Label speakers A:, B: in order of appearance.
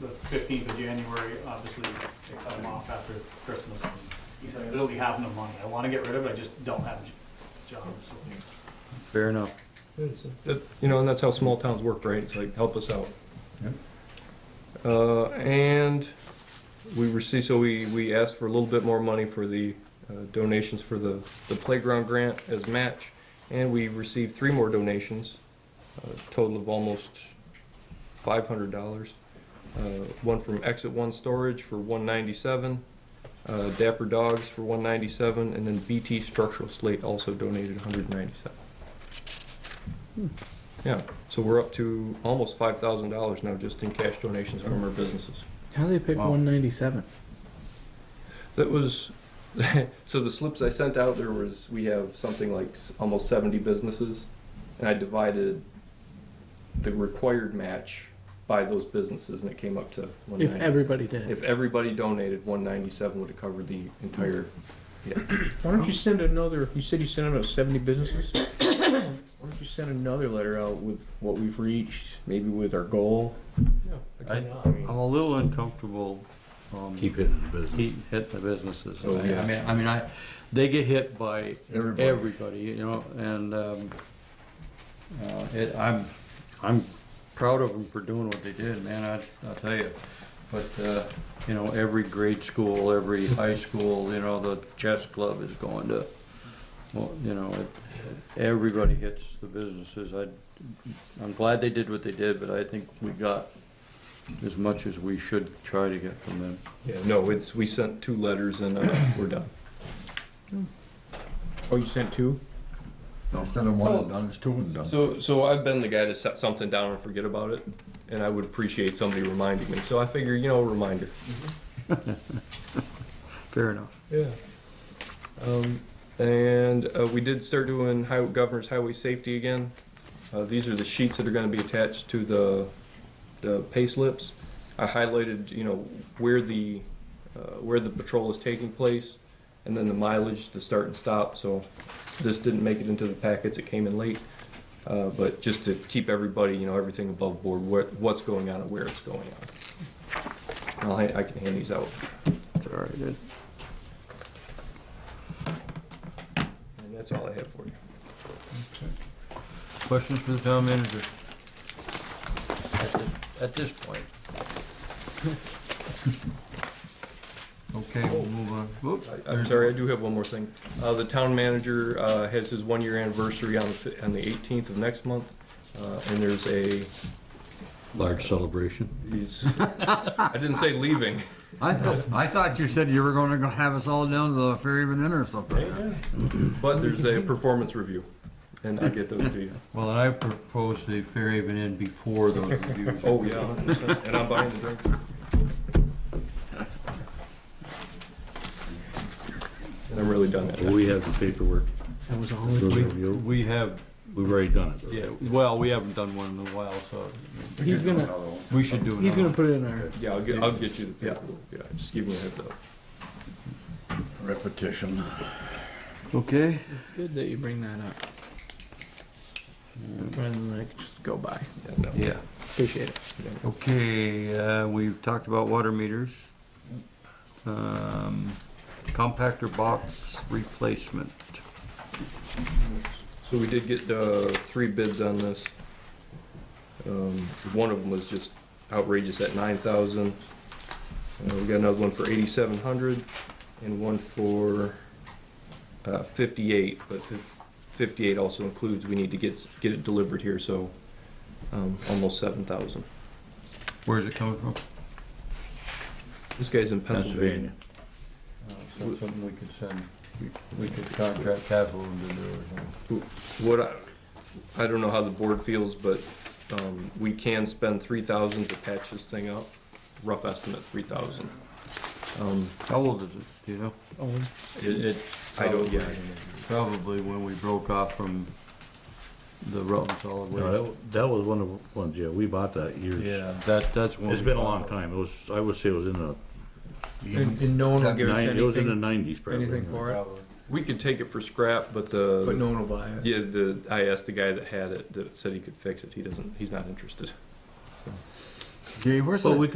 A: the fifteenth of January, obviously, they cut them off after Christmas. and He said, I literally have no money, I wanna get rid of it, I just don't have a job, so.
B: Fair enough.
C: That- You know, and that's how small towns work, right? It's like, help us out. Uh, and we received, so we, we asked for a little bit more money for the uh, donations for the, the playground grant as match. And we received three more donations, a total of almost five hundred dollars. Uh, one from Exit One Storage for one ninety-seven, uh, Dapper Dogs for one ninety-seven, and then BT Structural Slate also donated hundred ninety-seven. Yeah, so we're up to almost five thousand dollars now just in cash donations from our businesses.
D: How they pick
B: Wow.
D: 197?
C: That was, so the slips I sent out, there was, we have something like s- almost seventy businesses. And I divided the required match by those businesses and it came up to one
D: If
C: ninety.
D: everybody did.
C: If everybody donated, one ninety-seven would have covered the entire,
E: Why don't you send another, you said you sent out about seventy businesses? Why don't you send another letter out with what we've reached, maybe with our goal?
F: I-
E: I mean,
F: I'm a little uncomfortable, um,
B: Keep hitting the business.
F: keep hitting the businesses.
E: Oh,
F: I-
E: yeah.
F: I mean, I mean, I, they get hit by
B: Everybody.
F: everybody, you know, and, um, uh, it, I'm, I'm proud of them for doing what they did, man, I, I'll tell you. But, uh, you know, every grade school, every high school, you know, the chess club is going to, well, you know, it, everybody hits the businesses. I, I'm glad they did what they did, but I think we got as much as we should try to get from them.
C: yeah, no, it's, we sent two letters and uh, we're done.
E: Oh, you sent two?
B: Instead of one and done, it's two and done.
C: Oh. So, so I've been the guy to set something down and forget about it, and I would appreciate somebody reminding me, so I figure, you know, a reminder.
F: Fair enough.
C: Yeah. Um, and, uh, we did start doing highway, governor's highway safety again. Uh, these are the sheets that are gonna be attached to the, the pay slips. I highlighted, you know, where the, uh, where the patrol is taking place, and then the mileage, the start and stop, so this didn't make it into the packets, it came in late. Uh, but just to keep everybody, you know, everything above board, what, what's going on and where it's going on. And I, I can hand these out.
F: All right, good.
C: And that's all I have for you.
F: Questions for the town manager? At this- At this point. Okay, we'll move on. Whoops.
C: I- I'm sorry, I do have one more thing. Uh, the town manager, uh, has his one-year anniversary on the, fi- on the eighteenth of next month. Uh, and there's a,
F: Large celebration.
C: he's, I didn't say leaving.
B: I, thought- I thought you said you were gonna go have us all down to the Ferryman Inn or something.
C: But there's a performance review, and I'll get those to you.
F: Well, and I proposed the Fairhaven Inn before those reviews.
C: Oh, yeah, 100%. and I'm buying the drink. And I'm really done.
G: Well, We have the paperwork.
D: That was all
G: Those
D: it
G: review.
F: We have,
G: We've already done it.
F: yeah, well, we haven't done one in a while, so
D: He's gonna,
F: we should do another.
D: he's gonna put it in our,
C: Yeah, I'll get, I'll get you the paperwork, yeah, just give me a heads up.
B: Repetition.
F: Okay.
D: it's good that you bring that up. Rather than like just go by.
C: Yeah, no.
F: Yeah.
D: Appreciate it.
F: Okay, uh, we've talked about water meters. Um, compactor box replacement.
C: So we did get uh, three bids on this. Um, One of them was just outrageous at nine thousand. Uh, We got another one for eighty-seven hundred and one for uh, fifty-eight, but fif- fifty-eight also includes, we need to get, s- get it delivered here, so um, almost seven thousand.
F: Where's it coming from?
C: This guy's in Pennsylvania.
G: Pennsylvania.
F: Uh, So something we could send, we could contract capital to do or something.
C: What I, I don't know how the board feels, but um, we can spend three thousand to patch this thing up. Rough estimate, three thousand. Um,
F: How old is it, do you know?
D: Oh,
F: It, it.
C: I don't, yeah.
F: Probably when we broke off from the Rutland Solid
G: No,
F: Waste.
G: that- That was one of the ones, yeah, we bought that years.
F: Yeah, that, that's when.
G: It's
F: we
G: been a
F: bought
G: long
F: it.
G: time. It was, I would say it was in the,
E: And, and no one will give us
G: nine- it was in the
E: anything,
G: nineties probably.
E: anything for it,
C: We could take it for scrap,
E: but
C: but the,
E: no one will buy it.
C: yeah, the, I asked the guy that had it, that said he could fix it, he doesn't, he's not interested.
F: Jay, where's
G: Well, we